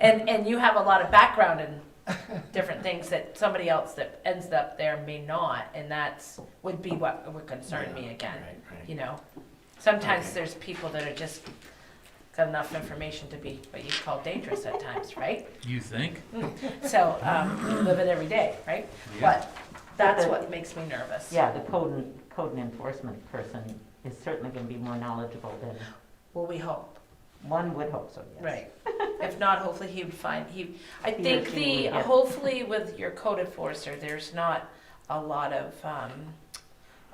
And, and you have a lot of background in different things that somebody else that ends up there may not, and that's, would be what would concern me again, Right, right. you know? Sometimes Okay. there's people that are just got enough information to be what you call dangerous at times, right? You think? So, um, you live it every day, right? But that's what makes me nervous. Yeah, the code, en- code and enforcement person is certainly gonna be more knowledgeable than, Well, we hope. one would hope so, yes. Right. If not, hopefully he would find, he, I He or think she the, would, yeah. hopefully with your code enforcer, there's not a lot of, um,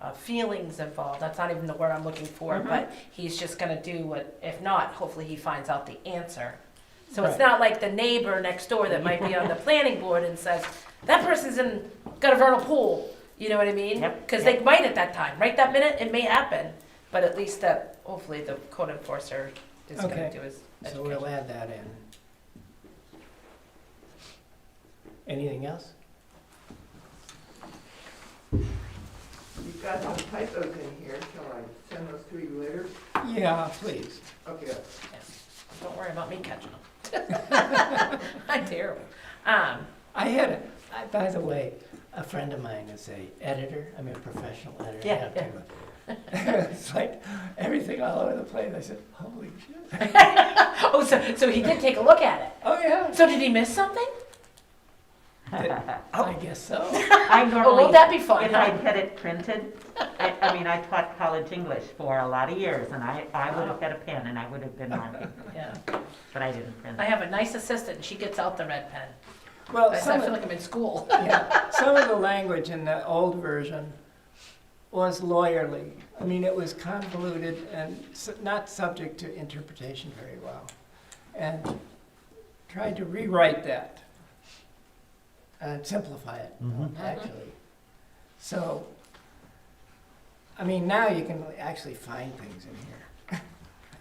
uh, feelings involved. That's not even the word I'm looking for, Mhm. but he's just gonna do what, if not, hopefully he finds out the answer. So it's Right. not like the neighbor next door that might be on the planning board and says, that person's in, got a vernal pool. You know what I mean? Yep, Cause yep. they might at that time, right that minute, it may happen, but at least that, hopefully the code enforcer is gonna Okay. do his So education. we'll add that in. Anything else? You've got some typos in here, shall I send those to you later? Yeah, please. Okay. Don't worry about me catching them. I'm terrible. Um, I had, a- I- by the way, a friend of mine is a editor, I mean, a professional editor. I Yeah, have to, uh, It's like, everything all over the place, I said, holy shit, oh, so, so he did take a look at it. oh yeah, So did he miss something? I guess so. I Oh, normally, won't that be fun? if I huh? had it printed, I, I mean, I taught college English for a lot of years, and I, I would have had a pen and I would have been marking, Yeah. but I didn't print I it. have a nice assistant, and she gets out the red pen. Well, I Oh, some feel of, like I'm in school. yeah, some of the language in the old version was lawyerly. I mean, it was convoluted and s- not subject to interpretation very well. And tried to rewrite that and simplify it, um, Mhm. actually. So, I mean, now you can actually find things in here.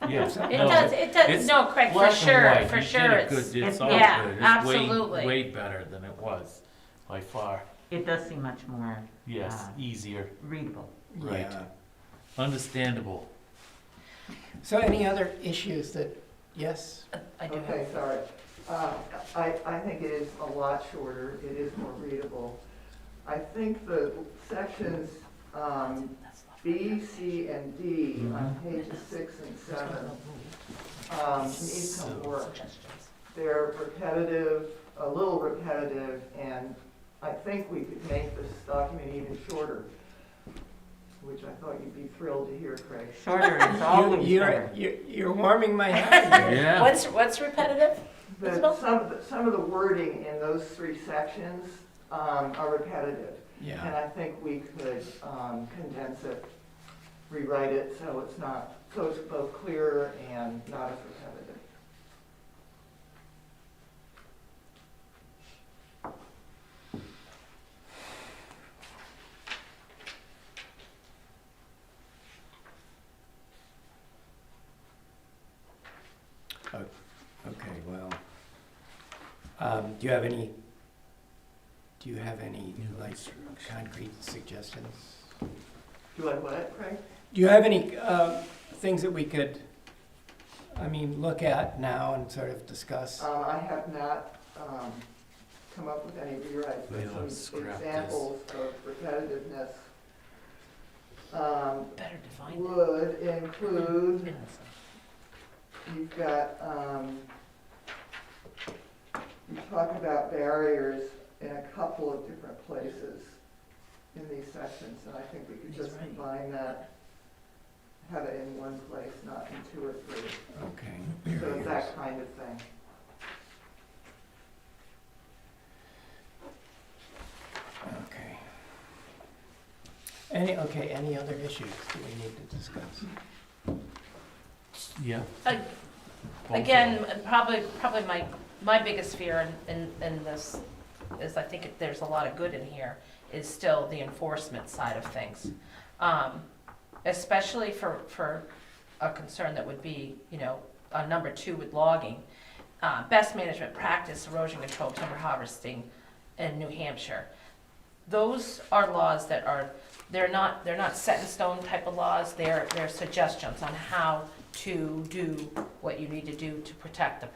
Yeah. It No, does, it does, it's no, Craig, for black and sure, white. for You sure. did a it's- good- It's it- all yeah, good. It's way- absolutely. Way better than it was, by far. It does seem much more Yes, Ah. easier, readable. Right. Yeah. understandable. So any other issues that, yes? I do Okay, have. sorry. Uh, I, I think it is a lot shorter, it is more readable. I think the sections um, B, C, and D on pages six and seven um, need some work. Suggestions. They're repetitive, a little repetitive, and I think we could make this document even shorter, which I thought you'd be thrilled to hear, Craig. Shorter is You- always You're, better. you're you're warming my heart here. Yeah. What's, what's repetitive? The, Isabel? some, of the- some of the wording in those three sections um, are repetitive, and Yeah, I think we could um, condense it, rewrite it, so it's not, so it's both clearer and not as repetitive. Oh, okay, well, um, do you have any, do you have any, like, concrete suggestions? Do I what, Craig? Do you have any, uh, things that we could, I mean, look at now and sort of discuss? Um, I have not, um, come up with any rewrites, We don't but some scrap this. examples of repetitiveness. Um, Better define it. would include, Yes. you've got, um, you talk about barriers in a couple of different places in these sections, and I think we could He's just right. combine that, have it in one place, not in two or three, Okay. so it's that kind of thing. Okay. Any, okay, any other issues that we need to discuss? Yeah. Ag- Both of Again, them. probably, probably my, my biggest fear in, in, in this is I think it- there's a lot of good in here, is still the enforcement side of things. Um, especially for, for a concern that would be, you know, on number two with logging. Uh, best management practice erosion control timber harvesting in New Hampshire. Those are laws that are, they're not, they're not set in stone type of laws, they're, they're suggestions on how to do what you need to do to protect the